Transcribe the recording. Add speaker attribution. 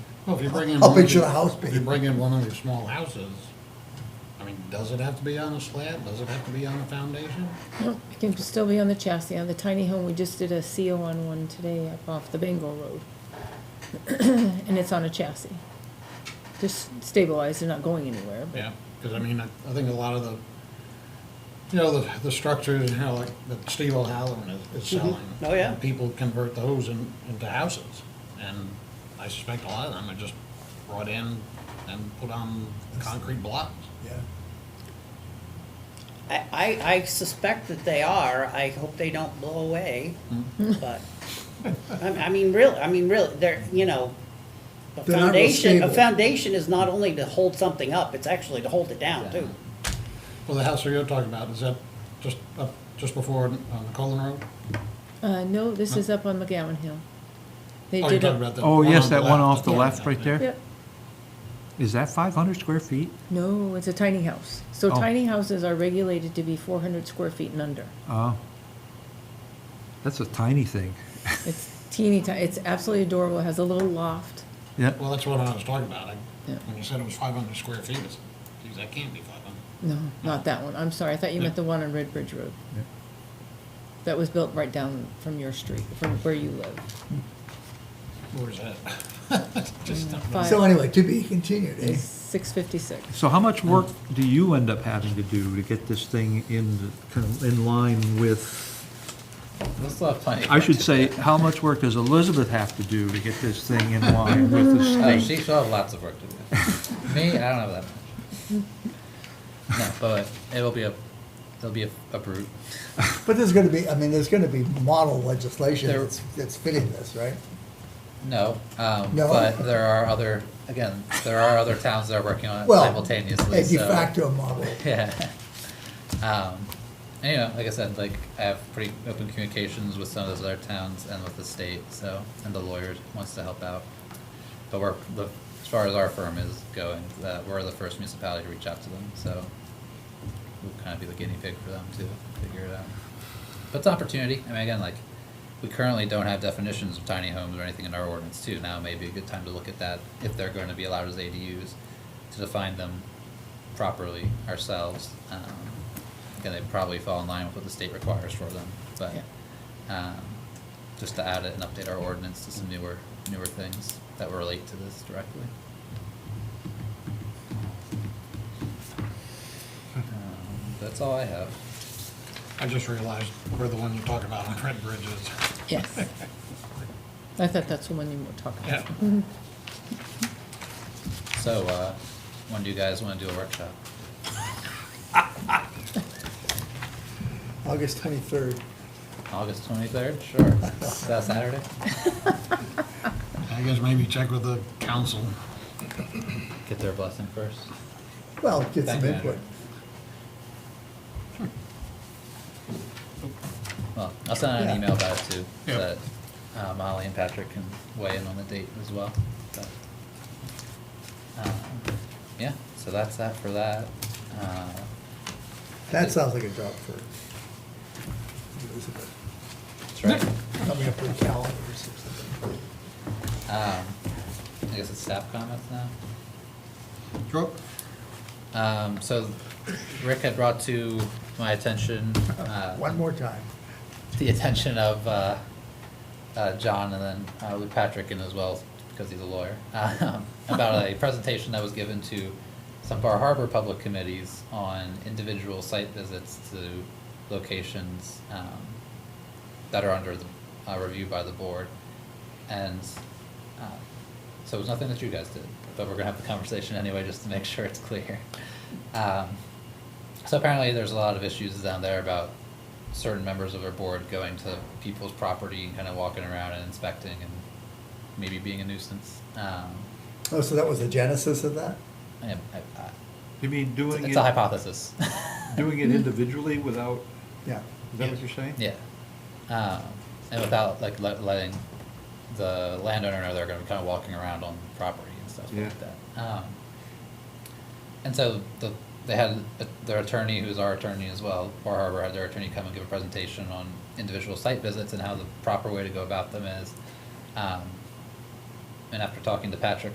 Speaker 1: Well, if you bring in. one
Speaker 2: How
Speaker 1: of
Speaker 2: big should
Speaker 1: your-
Speaker 2: a house be?
Speaker 1: If you bring in one of your small houses, I mean, does it have to be on a slab? Does it have to be on a foundation?
Speaker 3: It can still be on the chassis, on the tiny home, we just did a CO on one today up off the Bengal Road. And it's on a chassis. Just stabilized, they're not going anywhere, but
Speaker 1: Yeah, because I mean, I, I think a lot of the, you know, the, the structures, you know, like that Steve O'Halloran is, is selling.
Speaker 4: Oh, yeah.
Speaker 1: People convert those in, into houses, and I suspect a lot of them are just brought in and put on concrete blocks.
Speaker 2: Yeah.
Speaker 4: I, I, I suspect that they are, I hope they don't blow away, but, I, I mean, really, I mean, really, they're, you know, a
Speaker 2: They're not real
Speaker 4: foundation, a
Speaker 2: stable.
Speaker 4: foundation is not only to hold something up, it's actually to hold it down, too.
Speaker 1: Well, the house that you're talking about, is that just, up just before, on the Colin Road?
Speaker 3: Uh, no, this is up on McGowan Hill. They
Speaker 1: Oh, you're
Speaker 3: did
Speaker 1: talking
Speaker 3: a,
Speaker 1: about the
Speaker 5: Oh,
Speaker 1: one
Speaker 5: yes,
Speaker 1: on the
Speaker 5: that one
Speaker 1: left,
Speaker 5: off the
Speaker 1: yeah.
Speaker 5: left right there?
Speaker 3: yep,
Speaker 5: Is that five hundred square feet?
Speaker 3: no, it's a tiny house. So
Speaker 5: Oh.
Speaker 3: tiny houses are regulated to be four hundred square feet and under.
Speaker 5: Oh. That's a tiny thing.
Speaker 3: It's teeny tiny, it's absolutely adorable, it has a little loft.
Speaker 5: Yeah,
Speaker 1: Well, that's what I was talking about. I-
Speaker 3: Yeah.
Speaker 1: When you said it was five hundred square feet, I said, geez, that can't be five hundred.
Speaker 3: No, not that one, I'm sorry, I thought you meant the one on Red Bridge Road.
Speaker 5: Yeah.
Speaker 3: That was built right down from your street, from where you live.
Speaker 1: Where is that? Just don't know.
Speaker 3: Five.
Speaker 2: So anyway, to be continued, eh?
Speaker 3: Six fifty-six.
Speaker 5: so how much work do you end up having to do to get this thing in, kind of in line with?
Speaker 6: We'll still have plenty. of
Speaker 5: I
Speaker 6: work
Speaker 5: should
Speaker 6: to
Speaker 5: say,
Speaker 6: do.
Speaker 5: how much work does Elizabeth have to do to get this thing in line with the
Speaker 6: Oh,
Speaker 5: state?
Speaker 6: she still have lots of work to do. Me, I don't have that much. No, but it'll be a, it'll be a, a brute.
Speaker 2: But there's gonna be, I mean, there's gonna be model legislation
Speaker 6: There-
Speaker 2: that's, that's fitting this, right?
Speaker 6: No, um,
Speaker 2: No?
Speaker 6: but there are other, again, there are other towns that are working on it
Speaker 2: Well,
Speaker 6: simultaneously,
Speaker 2: A de
Speaker 6: so-
Speaker 2: facto model.
Speaker 6: Yeah. Um, and, you know, like I said, like I have pretty open communications with some of those other towns and with the state, so and the lawyers wants to help out. But we're the, as far as our firm is going, uh, we're the first municipality to reach out to them, so we'll kind of be the guinea pig for them to figure it out. But it's an opportunity. I mean, again, like we currently don't have definitions of tiny homes or anything in our ordinance too. Now may be a good time to look at that if they're going to be allowed as ADUs to define them properly ourselves. Um, again, they probably fall in line with what the state requires for them, but um, just to add it and update our ordinance to some newer newer things that relate to this directly. Um, that's all I have.
Speaker 1: I just realized we're the one you're talking about on Red Bridges.
Speaker 3: Yes. I thought that's the one you were talking
Speaker 1: Yeah.
Speaker 3: about.
Speaker 6: So, uh, when do you guys want to do a workshop?
Speaker 2: August twenty-third.
Speaker 6: August 23rd? Sure. Is that Saturday?
Speaker 1: I guess maybe check with the council.
Speaker 6: Get their blessing first.
Speaker 2: Well, get some
Speaker 6: Thank you.
Speaker 2: input.
Speaker 6: Well, I'll send out
Speaker 2: Yeah.
Speaker 6: an email about it too,
Speaker 1: Yeah.
Speaker 6: so that uh, Molly and Patrick can weigh in on the date as well. But, um, yeah, so that's that for that. Uh,
Speaker 2: That sounds like a job for Elizabeth.
Speaker 6: that's right.
Speaker 2: Coming up with calendars or something.
Speaker 6: Um, I guess it's staff comments now.
Speaker 1: Sure.
Speaker 6: Um, so Rick had brought to my attention, uh,
Speaker 2: One more time.
Speaker 6: the attention of, uh, uh, John and then, uh, Lou Patrick in as well, because he's a lawyer, um, about a presentation that was given to some of our harbor public committees on individual site visits to locations, um, that are under the, uh, review by the board. And, uh, so it was nothing that you guys did, but we're gonna have the conversation anyway, just to make sure it's clear. Um, so apparently, there's a lot of issues down there about certain members of our board going to people's property and kind of walking around and inspecting and maybe being a nuisance. Um,
Speaker 2: Oh, so that was the genesis of that?
Speaker 6: I, I, I,
Speaker 5: You mean
Speaker 6: it's,
Speaker 5: doing
Speaker 6: it's a hypothesis.
Speaker 5: doing it individually without,
Speaker 2: Yeah.
Speaker 5: is
Speaker 1: that what you're
Speaker 5: saying?
Speaker 6: yeah, um, and without like let, letting the landowner know they're going to be kind of walking around on property and stuff
Speaker 5: Yeah.
Speaker 6: like that. Um, and so the they had a, their attorney, who's our attorney as well, Bar Harbor had their attorney come and give a presentation on individual site visits and how the proper way to go about them is. Um, and after talking to Patrick